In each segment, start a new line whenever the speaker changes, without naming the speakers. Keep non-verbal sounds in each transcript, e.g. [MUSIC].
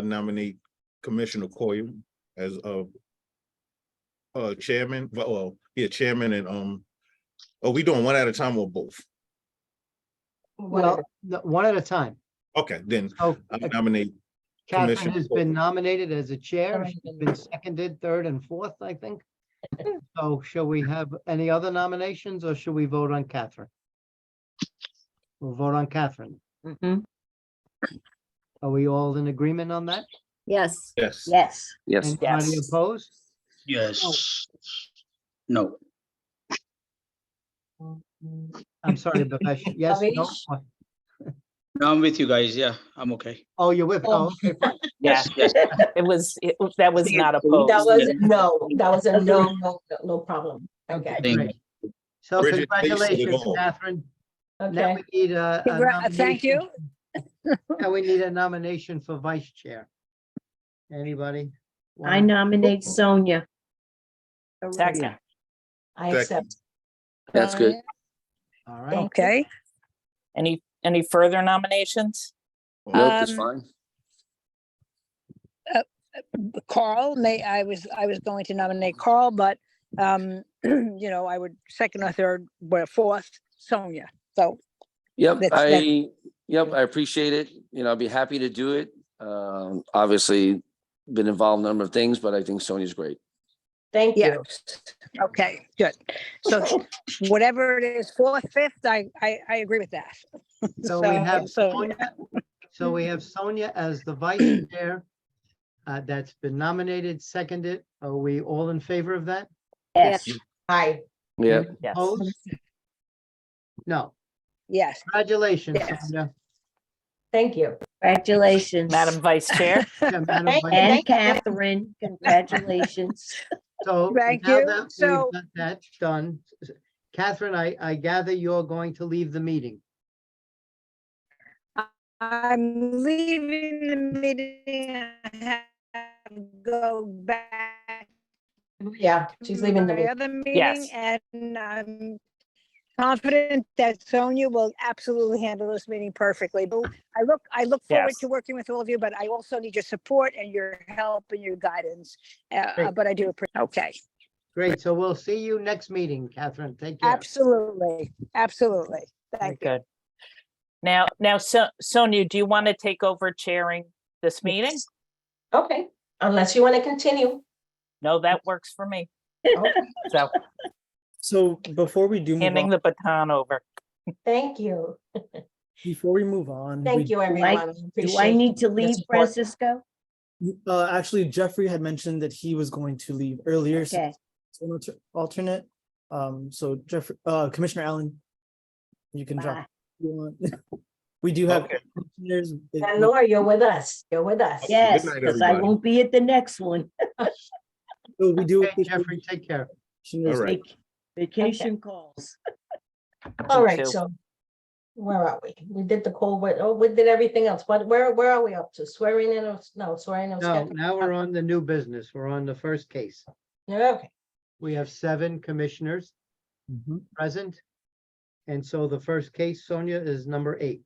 I nominate Commissioner Coyle as uh uh chairman, well, well, yeah, chairman and um, are we doing one at a time or both?
Well, no, one at a time.
Okay, then
So
I nominate,
Oh, uh, Catherine
Commissioner
has
Polk.
been nominated as a chair. She's been seconded, third and fourth, I
[LAUGHS]
think. So shall we have any other nominations or shall we vote on Catherine? We'll vote on Catherine.
Mm-hmm.
Mhm.
Are we all in agreement on that?
Yes,
yes.
Yes.
Yes,
Anybody
Yes.
opposed?
Yes. No,
I'm sorry,
[LAUGHS]
Bhavesh. Yes, no?
Bhavesh?
what?
no, I'm with you guys. Yeah, I'm okay.
Oh, you're with, oh,
Oh.
okay, fine.
yes,
Yes,
it was, it was- that was not
Oh,
opposed.
That was, no, that was a no, no, no problem. Okay,
Thank you.
Great. So
Bridget, thanks for the
congratulations,
goal.
Catherine. Now
okay.
we need a. a
Congra- uh, thank you.
nomination. Now we
[LAUGHS]
need a nomination for vice chair. Anybody?
I
Wanna-
nominate Sonia.
Second,
I accept.
That's
good.
All
Thank
right,
Okay.
any, any further nominations?
Um, uh,
fine.
Carl, may, I was, I was going to nominate Carl, but, um, [CLEARS THROAT] you know, I would second or third, but fourth, Sonia. So,
Yep,
That's- that-
I, yep, I appreciate it. You know, I'd be happy to do it. Um, obviously, been involved in a number of things, but I think Sonia's great.
Thank
yeah.
you.
Okay, good. So whatever it is, fourth, fifth, I, I, I agree with that.
so we have
so-
Sonia, so we have Sonia as the
[CLEARS THROAT]
vice chair. Uh, that's been nominated, seconded. Are we all in favor of that?
Yes. Hi,
Yeah,
Yes.
Opposed? No,
Yes.
congratulations,
Yes. [LAUGHS]
Sonia.
thank you.
Congratulations.
Madam
[LAUGHS]
Vice Chair,
Yeah, Madam
Thank
Vice-
you. [LAUGHS]
And Catherine, congratulations.
So.
Thank
now
you.
that we've
So-
got That done. Catherine, I, I gather you're going to leave the meeting.
I'm leaving the meeting. I have to Go back.
Yeah, she's
to
leaving the
my
meeting.
Other meeting
Yes.
and I'm confident that Sonia will absolutely handle this meeting perfectly. But I look, I look forward
Yes.
to working with all of you, but I also need your support and your help and your guidance. Uh,
Great.
but I do, appre- okay,
Great, so we'll see you next meeting, Catherine. Take care.
absolutely, absolutely.
Very
Thank you.
good. Now, now So- Sonia, do you want to take over chairing this meeting?
Okay, unless you want to continue.
No, that works for me.
Okay.
So
[LAUGHS]
So before we do, move
handing
on,
the baton over.
Thank you.
before we move on.
Thank you, everyone.
Do I need to leave,
support.
Francisco?
you. Uh, actually, Jeffrey had mentioned that he was going to leave earlier. so
Okay,
he's an alter- Alternate, um, so Jeffrey, uh, Commissioner Allen. You can drop.
Bye.
if you want. [LAUGHS] We do have.
Okay.
commissioners. It-
And Laura, you're with us. You're with us.
yes,
night,
because I
everybody.
won't be at the next one.
so We do.
Okay, Jeffrey, take care.
commissioners.
All right.
Vac- Vacation calls.
All
Me
right,
too.
so where are we? We did the cold, what, oh, we did everything else. What, where, where are we up to? Swearing in or, s- no, swearing or
No,
scheduling?
now we're on the new business. We're on the first case.
Yeah, Okay,
We have seven commissioners
Mhm.
present. And so the first case, Sonia, is number eight.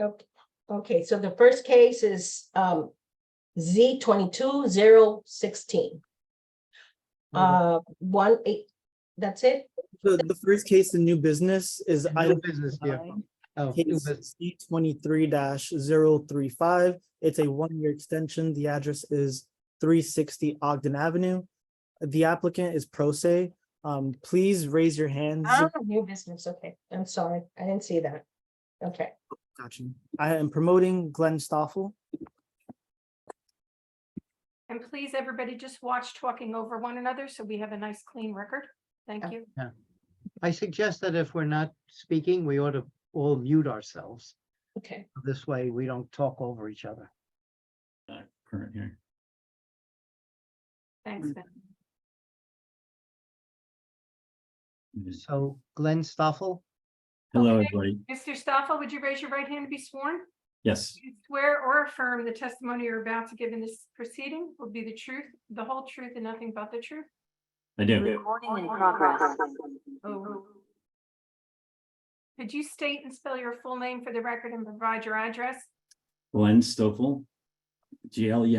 okay, okay, so the first case is um Z twenty-two zero sixteen. Uh,
Number-
one eight, that's it?
The, the first case, the new business is
new
item
Business, yeah.
nine,
Oh, new
case
business.
C twenty-three 35 It's a one-year extension. The address is three sixty Ogden Avenue. The applicant is Pro Se. Um, please raise your hands.
Ah, new business, okay, I'm sorry, I didn't see that. Okay,
Got you. I am promoting Glenn Stoffel.
And please, everybody just watch talking over one another so we have a nice clean record. Thank
Yeah.
you.
I suggest that if we're not speaking, we ought to all mute ourselves.
okay.
This way, we don't talk over each other.
Current hearing.
Thanks, Ben.
Hmm.
So Glenn Stoffel,
Hello,
Okay.
everybody.
Mr. Stoffel, would you raise your right hand to be sworn?
Yes,
Do you Swear or affirm the testimony you're about to give in this proceeding will be the truth, the whole truth, and nothing but the truth?
I do.
Oh. Could you state and spell your full name for the record and provide your address?
Glenn Stoffel,
GLE